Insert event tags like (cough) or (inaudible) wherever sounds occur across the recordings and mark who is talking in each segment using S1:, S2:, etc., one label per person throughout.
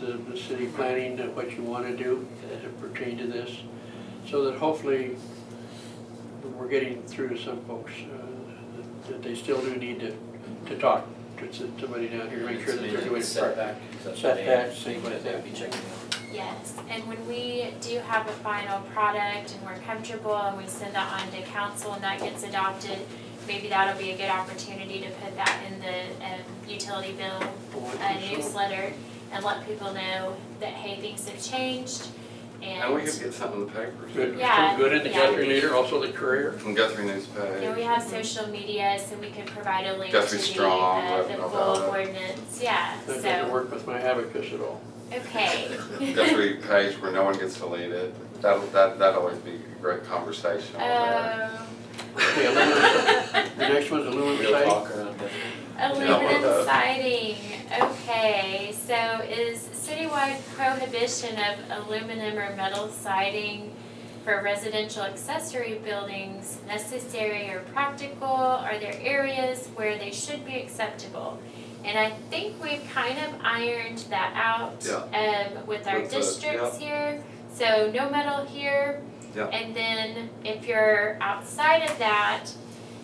S1: the, the city planning, that what you want to do as it pertains to this, so that hopefully we're getting through to some folks, uh, that- that they still do need to, to talk to s- somebody down here, make sure that they're doing it correctly.
S2: Setback.
S1: Setbacks, things like that.
S2: Be checking out.
S3: Yes, and when we do have a final product and we're comfortable and we send that on to council and that gets adopted, maybe that'll be a good opportunity to put that in the um, utility bill uh, newsletter and let people know that, hey, things have changed
S4: And we could
S3: and,
S4: get something in the paper
S1: Good,
S4: too.
S3: Yeah,
S1: so good in the
S3: yeah.
S1: Guthrie Leader, also the Courier.
S4: From Guthrie News
S3: you know, we
S4: Page.
S3: have social media, so we could provide a link to
S4: Guthrie
S3: the,
S4: Strong,
S3: uh, the
S4: let them know
S3: full
S4: about
S3: ordinance, yeah,
S1: That doesn't
S3: so,
S1: work with my abacus at all.
S3: okay.
S1: (laughs)
S4: Guthrie Page where no one gets to lead it. That'll, that, that'd always be a great conversation on there.
S3: Um,
S1: Okay, aluminum, the next one's aluminum
S2: Real
S1: siding.
S2: talk around that.
S3: Oh,
S4: Yeah,
S3: Aluminum
S4: well, uh,
S3: siding, okay, so is citywide prohibition of aluminum or metal siding for residential accessory buildings necessary or practical? Are there areas where they should be acceptable? And I think we've kind of ironed that out, um, with our
S4: With the-
S3: districts here. So no metal here.
S4: Yeah.
S3: And then if you're outside of that,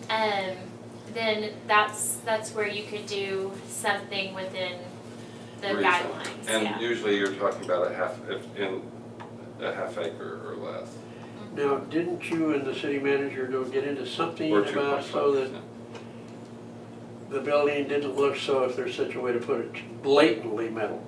S3: um, then that's, that's where you could do something within the
S4: Reason.
S3: guidelines,
S4: And
S3: yeah.
S4: usually you're talking about a half, if, in a half acre or less.
S1: Now, didn't you and the city manager go get into something
S4: Or two
S1: about
S4: point
S1: so that
S4: five percent.
S1: the building didn't look so, if there's such a way to put it, blatantly metal?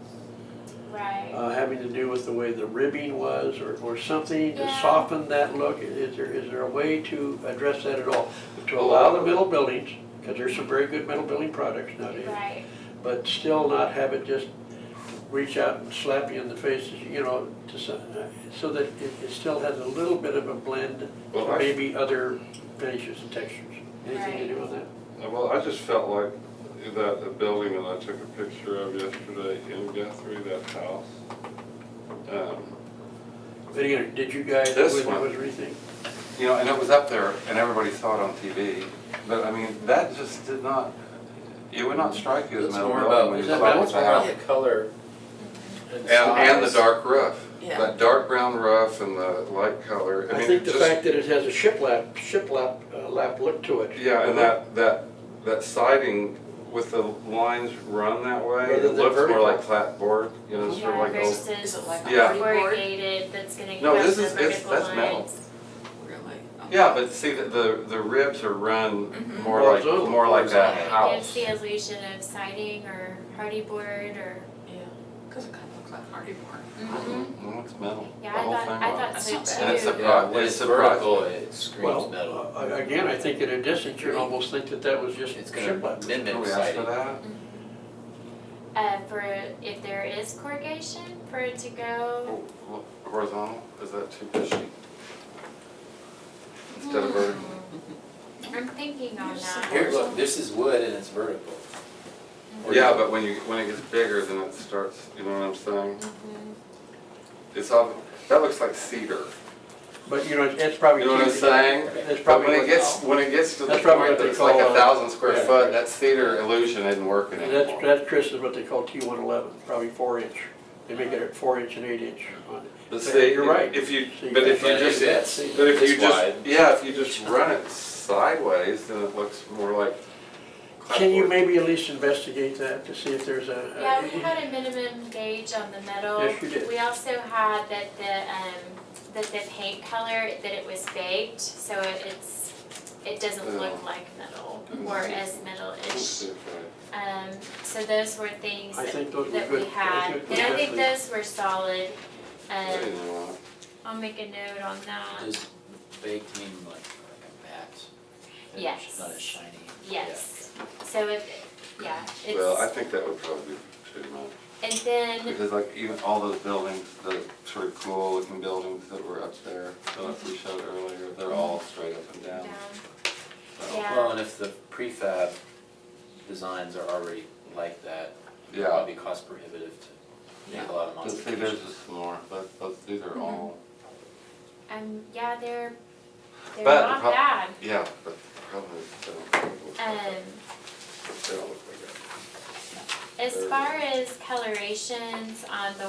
S3: Right,
S1: uh, having to do with the way the ribbing was or, or something to
S3: Yeah.
S1: soften that look? Is there, is there a way to address that at all? To allow the metal buildings, because there's some very good metal building products nowadays,
S3: right,
S1: but still not have it just reach out and slap you in the face, you know, to, some- so that it, it still has a little bit of a blend,
S4: Well, I-
S1: maybe other finishes and textures. Anything to do with that?
S4: Uh, Well, I just felt like that the building that I took a picture of yesterday in Guthrie, that house. Um,
S1: But again, did you guys,
S4: This
S1: when there
S4: one.
S1: was rethink?
S4: You know, and it was up there and everybody saw it on TV, but I mean, that just did not, it would not strike you as
S2: It's
S4: metal
S2: more
S4: building
S2: about,
S4: when
S2: it's
S4: you
S1: that
S4: saw it
S2: about
S4: with
S2: it's
S4: the
S2: about
S4: house.
S2: the color and
S4: And, and the
S2: size.
S4: dark roof,
S5: Yeah.
S4: that dark brown roof and the light color, I
S1: I
S4: mean,
S1: think the
S4: just-
S1: fact that it has a shiplap, shiplap uh, lap look to it.
S4: Yeah, and that, that, that siding with the lines run that way,
S1: Rather
S4: it
S1: than
S4: looks more
S1: vertical.
S4: like flatboard, you know, sort of
S3: yeah,
S4: like old.
S5: Is
S3: versus
S5: it like a
S4: Yeah.
S5: party board?
S3: corrugated, that's gonna
S4: No,
S3: cross
S4: this
S3: the
S4: is- it's-
S3: vertical
S4: that's metal.
S3: lines.
S5: Really? Oh.
S4: Yeah, but see, the, the the ribs are run
S3: Mm-hmm.
S5: Mhm.
S4: more like,
S1: Horizontal.
S4: more like that
S5: Horizontal.
S4: house.
S3: It gives the illusion of siding or hardy board or,
S5: Yeah, because it kind of looks like party board.
S3: Mhm.
S4: No, it's metal, the
S3: yeah, I
S4: whole
S3: thought,
S4: thing
S3: I
S4: was.
S3: thought
S5: That's
S3: so
S5: not bad.
S3: too.
S4: And it's a-
S2: Yeah, when it's
S4: It's surprising.
S2: vertical, it screams
S1: Well,
S2: metal.
S1: uh, I- again, I think at a distance, you'd almost think that that was just
S2: It's gonna
S1: shiplap.
S4: Can
S2: mimic
S4: we ask
S2: siding.
S4: for that?
S3: Uh, for, if there is corrugation, for it to go,
S4: Oh, look, Horizontal, is that too pushy? Instead
S1: Mm.
S4: of vertical?
S3: Mm-hmm. I'm thinking on
S5: You're so-
S3: that.
S2: Here, look, this is wood and it's vertical. Or
S4: Yeah, but when you, when it gets bigger, then it starts, you know what I'm saying?
S3: Mhm.
S4: It's all, that looks like cedar.
S1: But, you know, it's- it's probably.
S4: You know what I'm saying?
S1: It's
S4: But when
S1: probably
S4: it gets,
S1: what,
S4: when it gets to the
S1: That's probably
S4: point
S1: what
S4: that
S1: they
S4: it's like
S1: call,
S4: a
S1: uh,
S4: thousand square
S1: yeah.
S4: foot, that cedar illusion isn't working
S1: that's,
S4: anymore.
S1: that's Chris is what they call T one eleven, probably four inch. They make it at four inch and eight inch on it.
S4: But see,
S1: You're right.
S4: If you,
S1: See,
S4: but if
S2: But
S4: you
S2: it
S4: just,
S2: fits.
S4: but if
S2: This
S4: you
S2: wide.
S4: just, yeah, if you just run it sideways, then it looks more like
S1: Can you
S4: clapboard.
S1: maybe at least investigate that to see if there's a? a-
S3: Yeah, we had a minimum gauge on the metal.
S1: Yes, you did.
S3: We also had that the, um, that the paint color, that it was baked, so it- it's, it doesn't look
S4: Yeah.
S3: like metal
S1: Mm-hmm.
S3: or as metal-ish. Um, so those were things
S1: I
S3: that
S1: think those were
S3: that we
S1: good.
S3: had,
S1: those were
S3: and I think
S1: good.
S3: those were solid.
S4: There you
S3: Um,
S4: go.
S3: I'll make a note on that,
S2: Does baked mean like, like a matte? It's
S3: Yes.
S2: Not as shiny?
S3: yes. So if, yeah,
S4: Well, I
S3: it's,
S4: think that would probably be too much.
S3: and then,
S4: Because like even all those buildings, the sort of cool looking buildings that were up there, that we showed earlier, they're all straight up and down.
S3: down,
S4: So,
S2: Yeah.
S3: Yeah.
S2: Well, and if the prefab designs are already like that, it'd
S4: Yeah.
S2: probably be cost prohibitive to make
S5: Yeah.
S2: a lot of
S4: But see, there's
S2: modifications.
S4: just more, but, but these are all,
S3: um, yeah, they're, they're
S4: But the
S3: not
S4: prob-
S3: bad.
S4: yeah, but the problem is they don't look like
S3: Mm-hmm. Um,
S4: that. They don't look like
S3: As far as colorations on the